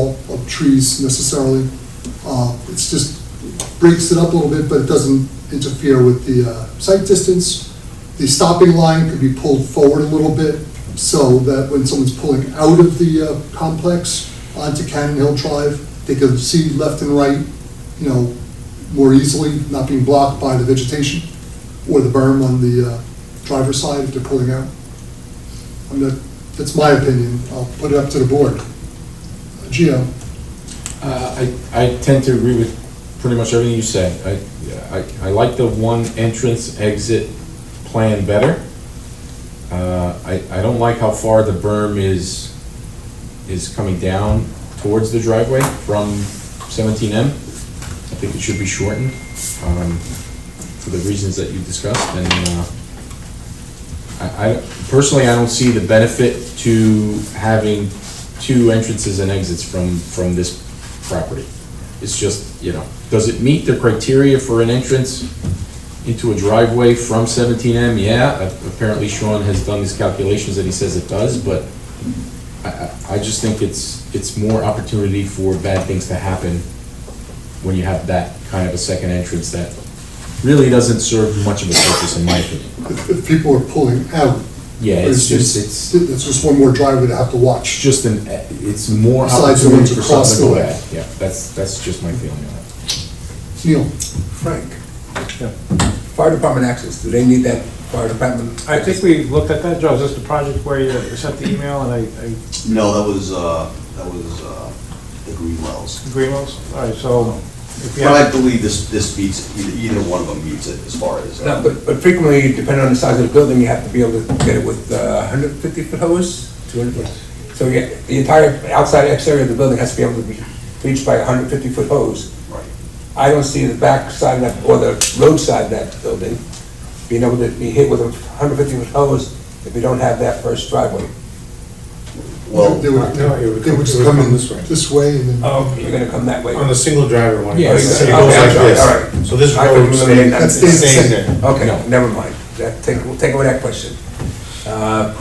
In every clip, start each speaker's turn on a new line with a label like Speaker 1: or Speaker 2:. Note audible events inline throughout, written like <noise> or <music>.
Speaker 1: of trees necessarily. Uh, It's just breaks it up a little bit, but it doesn't interfere with the uh, sight distance. The stopping line could be pulled forward a little bit so that when someone's pulling out of the uh, complex onto Cannon Hill Drive, they could see left and right, you know, more easily, not being blocked by the vegetation or the berm on the uh, driver's side if they're pulling out. I mean, that- that's my opinion. I'll put it up to the board. Uh, Gio?
Speaker 2: Uh, I, I tend to agree with pretty much everything you said. I, I, I like the one entrance exit plan better. Uh, I, I don't like how far the berm is, is coming down towards the driveway from seventeen M. I think it should be shortened, um, for the reasons that you discussed, and, uh, I, I, personally, I don't see the benefit to having two entrances and exits from, from this property. It's just, you know, does it meet the criteria for an entrance into a driveway from seventeen M? Yeah, a- apparently Sean has done these calculations and he says it does, but I, I, I just think it's, it's more opportunity for bad things to happen when you have that kind of a second entrance that really doesn't serve much of a purpose, in my opinion.
Speaker 1: If, if people are pulling out.
Speaker 2: Yeah, it's just, it's,
Speaker 1: It's it's just one more driveway to have to
Speaker 2: it's
Speaker 1: watch.
Speaker 2: just an, it's more
Speaker 1: Besides the ones
Speaker 2: opportunity for
Speaker 1: across
Speaker 2: something to go
Speaker 1: the way.
Speaker 2: bad. Yeah, that's, that's just my feeling on it.
Speaker 1: Neil?
Speaker 3: Frank, fire department access, do they need that fire department?
Speaker 4: I think we looked at that, Joe, is this the project where you sent the email and I, I
Speaker 5: No, that was, uh, that was, uh, the Green Wells.
Speaker 4: agree most? All right, so if you
Speaker 5: But I
Speaker 4: have,
Speaker 5: believe this, this meets, either, either one of them meets it as far as. uh,
Speaker 3: No, but, but frequently, depending on the size of the building, you have to be able to get it with uh, hundred fifty foot hose, two hundred foot. So yeah, the entire outside exterior of the building has to be able to be reached by hundred fifty foot hose.
Speaker 5: Right.
Speaker 3: I don't see the back side of that, or the roadside of that building being able to be hit with a hundred fifty foot hose if you don't have that first driveway.
Speaker 5: Well,
Speaker 1: They would,
Speaker 6: no, it would
Speaker 1: they
Speaker 6: come-
Speaker 1: would just
Speaker 6: it would
Speaker 1: come
Speaker 6: come
Speaker 1: in
Speaker 6: this way.
Speaker 1: this way and then,
Speaker 3: Oh. You're gonna come that way.
Speaker 6: On the single driver one, it
Speaker 2: Yeah, it's-
Speaker 6: goes it
Speaker 3: okay,
Speaker 6: goes
Speaker 3: I'm
Speaker 6: like
Speaker 3: sorry, all right.
Speaker 6: this. So this
Speaker 3: I
Speaker 6: road
Speaker 3: couldn't
Speaker 6: stays,
Speaker 3: eliminate that.
Speaker 1: That's the
Speaker 6: stays
Speaker 1: same.
Speaker 6: there.
Speaker 3: Okay,
Speaker 2: No.
Speaker 3: never mind. That, take, we'll take away that question. Uh,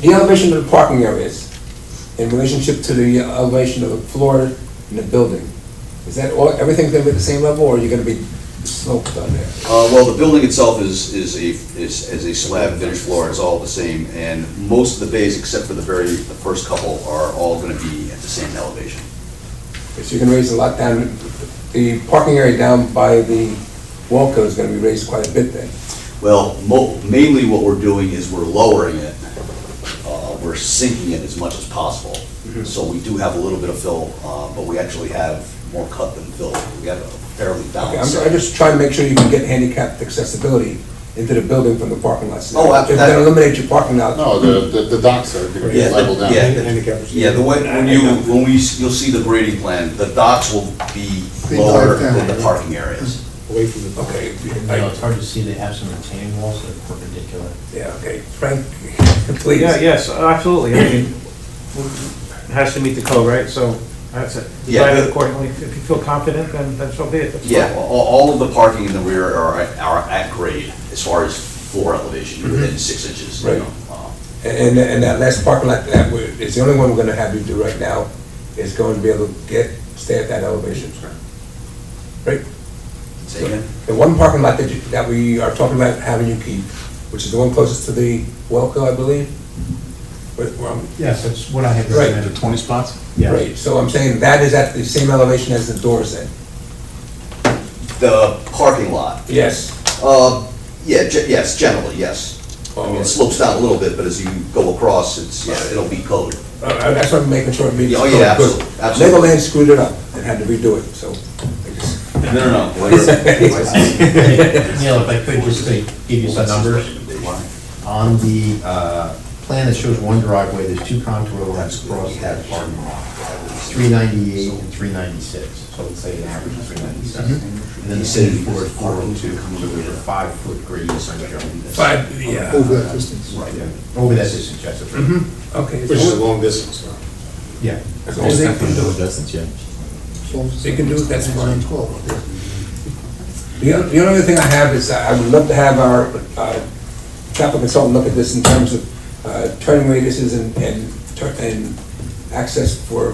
Speaker 3: The elevation of the parking areas in relationship to the elevation of the floor in the building, is that all, everything's gonna be at the same level, or are you gonna be sloped on there?
Speaker 5: uh, well, the building itself is, is a, is, is a slab finished floor, it's all the same, and most of the bays, except for the very, the first couple, are all gonna be at the same elevation.
Speaker 3: So you're gonna raise a lot down, the parking area down by the wall code is gonna be raised quite a bit then.
Speaker 5: Well, mo- mainly what we're doing is we're lowering it, uh, we're sinking it as much as possible. So we do have a little bit of fill, uh, but we actually have more cut than fill, we have a fairly
Speaker 3: Okay, I'm,
Speaker 5: balanced.
Speaker 3: I'm just trying to make sure you can get handicapped accessibility into the building from the parking lot.
Speaker 5: Oh, I-
Speaker 3: If you
Speaker 5: that-
Speaker 3: eliminate your parking lot.
Speaker 7: No, the, the- the docks are gonna be
Speaker 5: Yeah, the-
Speaker 7: leveled down.
Speaker 5: yeah.
Speaker 6: Handicap.
Speaker 5: Yeah, the way, when you, when we, s- you'll see the grading plan, the docks will be
Speaker 1: They
Speaker 5: lower
Speaker 1: dive down,
Speaker 5: than the
Speaker 1: right?
Speaker 5: parking areas.
Speaker 6: Away from the.
Speaker 3: Okay,
Speaker 8: You know, it's hard to see, they have some retaining walls that are perpendicular. <laughs>
Speaker 3: Yeah, okay, Frank, <laughs> please.
Speaker 4: yeah, yes, absolutely, I mean, it has to meet the code, right? So that's it.
Speaker 5: Yeah.
Speaker 4: Divide it accordingly, if you feel confident, then, then so be it. That's
Speaker 5: Yeah,
Speaker 4: fine.
Speaker 5: a- all, all of the parking in the rear are, at- are at grade as far as floor elevation, within six inches. you
Speaker 3: Right.
Speaker 5: know, um,
Speaker 3: And, and that last parking lot that we're, it's the only one we're gonna have you do right now, is going to be able to get, stay at that elevation. Right?
Speaker 5: say again?
Speaker 3: The one parking lot that you, that we are talking about having you keep, which is the one closest to the Welco, I believe? Where- where I'm-
Speaker 6: Yes, that's what I had
Speaker 3: Right.
Speaker 6: recommended. Twenty spots? Yeah.
Speaker 3: Right, so I'm saying that is at the same elevation as the doors then?
Speaker 5: The parking lot,
Speaker 3: Yes.
Speaker 5: uh, yeah, ge- yes, generally, yes. I mean, it
Speaker 3: Oh,
Speaker 5: slopes down a little bit, but as you go across, it's, yeah, it'll be code.
Speaker 3: uh, That's what I'm making sure it means.
Speaker 5: Oh, yeah,
Speaker 3: Good.
Speaker 5: absolutely, absolutely.
Speaker 3: Legoland screwed it up and had to redo it, so. I <laughs> guess-
Speaker 5: No, no, no. Wait.
Speaker 8: Neil, if I could just to give you some numbers, on the uh, plan that shows one driveway, there's two contour lines across that parking lot, 398 and 396, so let's say an average of 397. And then the city board 402, so there's a five-foot gradient on this.
Speaker 3: Five, yeah.
Speaker 1: over that distance.
Speaker 8: Right, yeah. over that distance, yes, that's right.
Speaker 3: Okay.
Speaker 6: Which is a long distance, so.
Speaker 8: Yeah.
Speaker 3: As long as they can do it.
Speaker 2: Doesn't, yeah.
Speaker 3: They can do it, that's fine.
Speaker 1: Twelve, yeah.
Speaker 3: The only, the only other thing I have is, uh, I would love to have our, uh, traffic consultant look at this in terms of, uh, turning radiuses and, and, tur- and access for